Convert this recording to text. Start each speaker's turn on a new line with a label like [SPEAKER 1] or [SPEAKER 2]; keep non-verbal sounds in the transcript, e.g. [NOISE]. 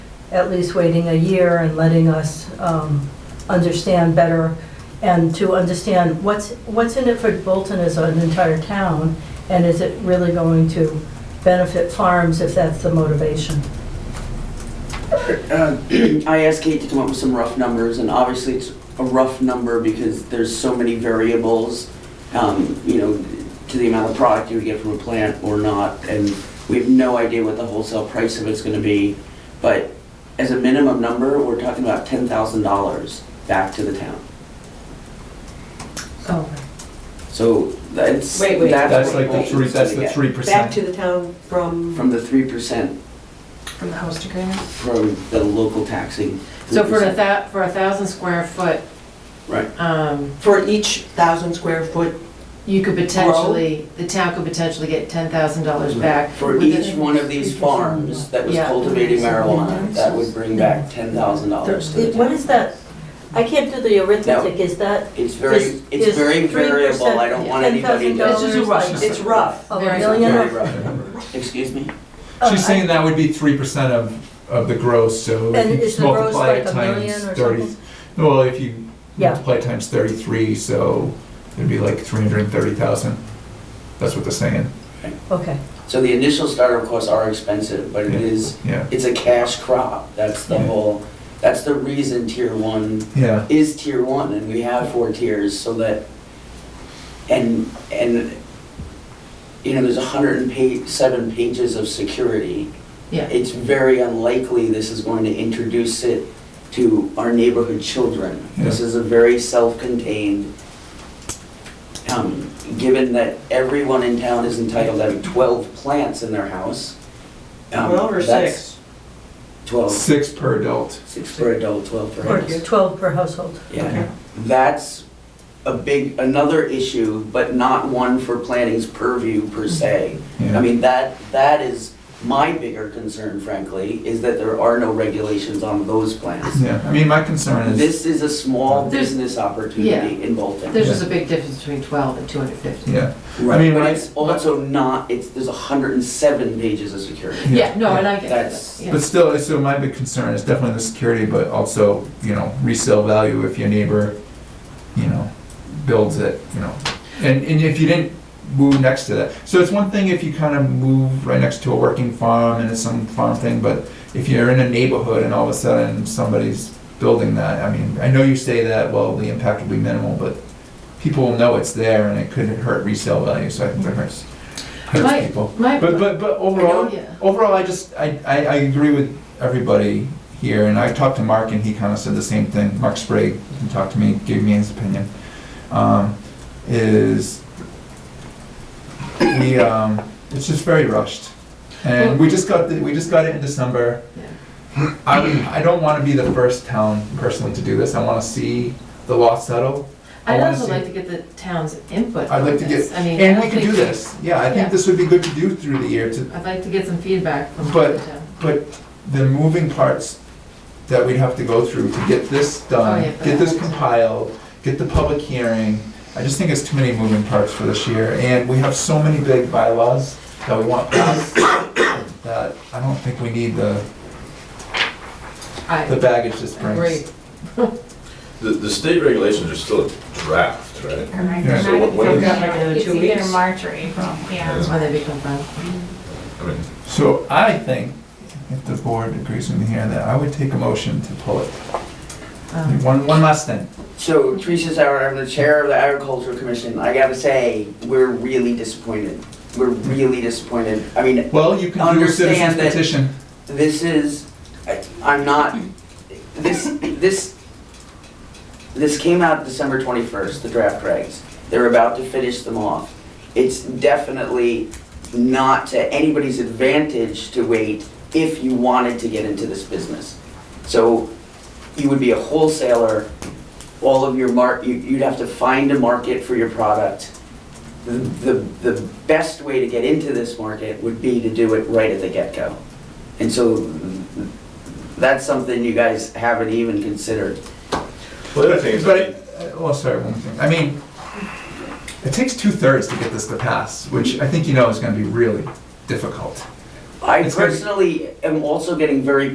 [SPEAKER 1] at least waiting a year and letting us um, understand better and to understand what's, what's in it for Bolton as an entire town, and is it really going to benefit farms if that's the motivation?
[SPEAKER 2] Uh, [CLEARS THROAT] I asked Kate to come up with some rough numbers, and obviously it's a rough number because there's so many variables, um, you know, to the amount of product you would get from a plant or not, and we have no idea what the wholesale price of it's gonna be. But as a minimum number, we're talking about ten thousand dollars back to the town.
[SPEAKER 3] Oh,
[SPEAKER 2] So that's,
[SPEAKER 3] Wait, wait.
[SPEAKER 2] that's
[SPEAKER 4] That's
[SPEAKER 2] what
[SPEAKER 4] like the
[SPEAKER 2] Bolton's
[SPEAKER 4] three, that's
[SPEAKER 2] gonna
[SPEAKER 4] the
[SPEAKER 2] get.
[SPEAKER 4] three
[SPEAKER 3] back to
[SPEAKER 4] percent.
[SPEAKER 3] the town from,
[SPEAKER 2] From the three percent
[SPEAKER 5] From the host agreement?
[SPEAKER 2] from the local taxing.
[SPEAKER 5] So for a
[SPEAKER 2] 3%.
[SPEAKER 5] thou, for a thousand square foot,
[SPEAKER 2] Right.
[SPEAKER 5] um,
[SPEAKER 3] for each thousand square foot,
[SPEAKER 5] you could potentially, the town could potentially get ten thousand dollars back.
[SPEAKER 2] For
[SPEAKER 5] with
[SPEAKER 2] each
[SPEAKER 5] the-
[SPEAKER 2] one of these farms that was
[SPEAKER 5] Yeah.
[SPEAKER 2] cultivating marijuana, that would bring back ten thousand dollars to the
[SPEAKER 1] What
[SPEAKER 2] town.
[SPEAKER 1] is that? I can't do the arithmetic, is that
[SPEAKER 2] It's very,
[SPEAKER 1] Is-
[SPEAKER 2] it's
[SPEAKER 1] is
[SPEAKER 2] very
[SPEAKER 1] 3%
[SPEAKER 2] variable, I don't want anybody
[SPEAKER 1] $10,000
[SPEAKER 2] to.
[SPEAKER 5] It's just a rush.
[SPEAKER 1] like-
[SPEAKER 3] it's rough.
[SPEAKER 1] of a
[SPEAKER 5] Very
[SPEAKER 1] million?
[SPEAKER 2] Very
[SPEAKER 1] or-
[SPEAKER 2] rough. Excuse me?
[SPEAKER 1] Oh,
[SPEAKER 4] She's
[SPEAKER 1] I-
[SPEAKER 4] saying that would be three percent of, of the gross,
[SPEAKER 1] And
[SPEAKER 4] so if you
[SPEAKER 1] is
[SPEAKER 4] just
[SPEAKER 1] the gross
[SPEAKER 4] multiply
[SPEAKER 1] like
[SPEAKER 4] it
[SPEAKER 1] a
[SPEAKER 4] times
[SPEAKER 1] million or
[SPEAKER 4] thirty.
[SPEAKER 1] something?
[SPEAKER 4] Well, if you
[SPEAKER 1] Yeah.
[SPEAKER 4] multiply it times thirty-three, so it'd be like three hundred and thirty thousand. That's what they're saying,
[SPEAKER 1] Okay,
[SPEAKER 2] So the initial startup costs are expensive, but it
[SPEAKER 4] Yeah.
[SPEAKER 2] is,
[SPEAKER 4] yeah,
[SPEAKER 2] it's a cash crop, that's the
[SPEAKER 4] Yeah.
[SPEAKER 2] whole, that's the reason tier one
[SPEAKER 4] yeah.
[SPEAKER 2] is tier one, and we have four tiers, so that, and, and, you know, there's a hundred and pa- seven pages of security.
[SPEAKER 5] Yeah.
[SPEAKER 2] It's very unlikely this is going to introduce it to our neighborhood children. This is a very self-contained, um, given that everyone in town is entitled to having twelve plants in their house. um,
[SPEAKER 3] Twelve or
[SPEAKER 2] that's
[SPEAKER 3] six?
[SPEAKER 2] Twelve,
[SPEAKER 4] Six per adult.
[SPEAKER 2] six for adult, twelve for
[SPEAKER 1] or
[SPEAKER 2] adults.
[SPEAKER 1] 12 per household.
[SPEAKER 2] Yeah, that's a big, another issue, but not one for planning's purview per se.
[SPEAKER 4] Yeah.
[SPEAKER 2] I mean, that, that is my bigger concern frankly, is that there are no regulations on those plans.
[SPEAKER 4] Yeah, I mean, my concern is,
[SPEAKER 2] This is a small
[SPEAKER 5] There's-
[SPEAKER 2] business opportunity in Bolton.
[SPEAKER 5] There's just a big difference between twelve and two hundred fifty.
[SPEAKER 4] yeah, I
[SPEAKER 2] Right,
[SPEAKER 4] mean,
[SPEAKER 2] but
[SPEAKER 4] my-
[SPEAKER 2] it's also not, it's, there's hundred and seven pages of security.
[SPEAKER 5] Yeah, no, and I get
[SPEAKER 2] That's-
[SPEAKER 5] that, yeah.
[SPEAKER 4] but still, so my big concern is definitely the security, but also, you know, resale value if your neighbor, you know, builds it, you know. And, and if you didn't move next to that, so it's one thing if you kind of move right next to a working farm and it's some farm thing, but if you're in a neighborhood and all of a sudden somebody's building that, I mean, I know you say that, well, the impact will be minimal, but people will know it's there and it could hurt resale value, so I think that hurts,
[SPEAKER 5] My-
[SPEAKER 4] hurts people.
[SPEAKER 5] My,
[SPEAKER 4] But, but, but overall,
[SPEAKER 5] yeah.
[SPEAKER 4] overall, I just, I, I, I agree with everybody here, and I talked to Mark, and he kinda said the same thing, Mark Sprague, he talked to me, gave me his opinion, um, is we, um, it's just very rushed. And we just got, the- we just got it in December. I, I don't wanna be the first town personally to do this, I wanna see the law settle. I
[SPEAKER 5] I'd
[SPEAKER 4] wanna
[SPEAKER 5] also
[SPEAKER 4] see-
[SPEAKER 5] like to get the town's input
[SPEAKER 4] I'd
[SPEAKER 5] on
[SPEAKER 4] like to get-
[SPEAKER 5] this. I mean, I
[SPEAKER 4] And
[SPEAKER 5] don't
[SPEAKER 4] we could
[SPEAKER 5] think-
[SPEAKER 4] do this, yeah, I
[SPEAKER 5] Yeah.
[SPEAKER 4] think this would be good to do through the year, to,
[SPEAKER 5] I'd like to get some feedback from
[SPEAKER 4] But-
[SPEAKER 5] the town.
[SPEAKER 4] But the moving parts that we'd have to go through to get this done,
[SPEAKER 5] Oh, yeah,
[SPEAKER 4] get this
[SPEAKER 5] but-
[SPEAKER 4] compiled, get the public hearing, I just think it's too many moving parts for this year, and we have so many big bylaws that we want passed, that I don't think we need the,
[SPEAKER 5] I
[SPEAKER 4] the baggage this
[SPEAKER 5] agree.
[SPEAKER 4] brings.
[SPEAKER 6] The, the state regulations are still a draft, right?
[SPEAKER 7] Correct.
[SPEAKER 4] Yeah.
[SPEAKER 6] So what- what
[SPEAKER 7] It's
[SPEAKER 6] is-
[SPEAKER 3] Another
[SPEAKER 7] It's
[SPEAKER 3] two
[SPEAKER 7] either
[SPEAKER 3] weeks?
[SPEAKER 7] March or April, yeah.
[SPEAKER 5] That's why they become fun.
[SPEAKER 6] I mean,
[SPEAKER 4] So I think, if the board agrees with me here, that I would take a motion to pull it.
[SPEAKER 5] Um,
[SPEAKER 4] One, one last thing.
[SPEAKER 2] So Teresa Sauer, I'm the chair of the Agricultural Commission, I gotta say, we're really disappointed. We're really disappointed. I mean,
[SPEAKER 4] Well, you can do a citizen's
[SPEAKER 2] Understand that-
[SPEAKER 4] petition.
[SPEAKER 2] this is, I- I'm not, this, this, this came out December 21st, the draft regs. They're about to finish them off. It's definitely not to anybody's advantage to wait if you wanted to get into this business. So you would be a wholesaler, all of your mar, you- you'd have to find a market for your product. The, the, the best way to get into this market would be to do it right at the get-go. And so that's something you guys haven't even considered.
[SPEAKER 6] well, the other thing is,
[SPEAKER 4] But,
[SPEAKER 6] I
[SPEAKER 4] it- uh, well, sorry, one more thing. I mean, it takes two-thirds to get this to pass, which I think you know is gonna be really difficult.
[SPEAKER 2] I
[SPEAKER 4] It's gonna be-
[SPEAKER 2] personally am also getting very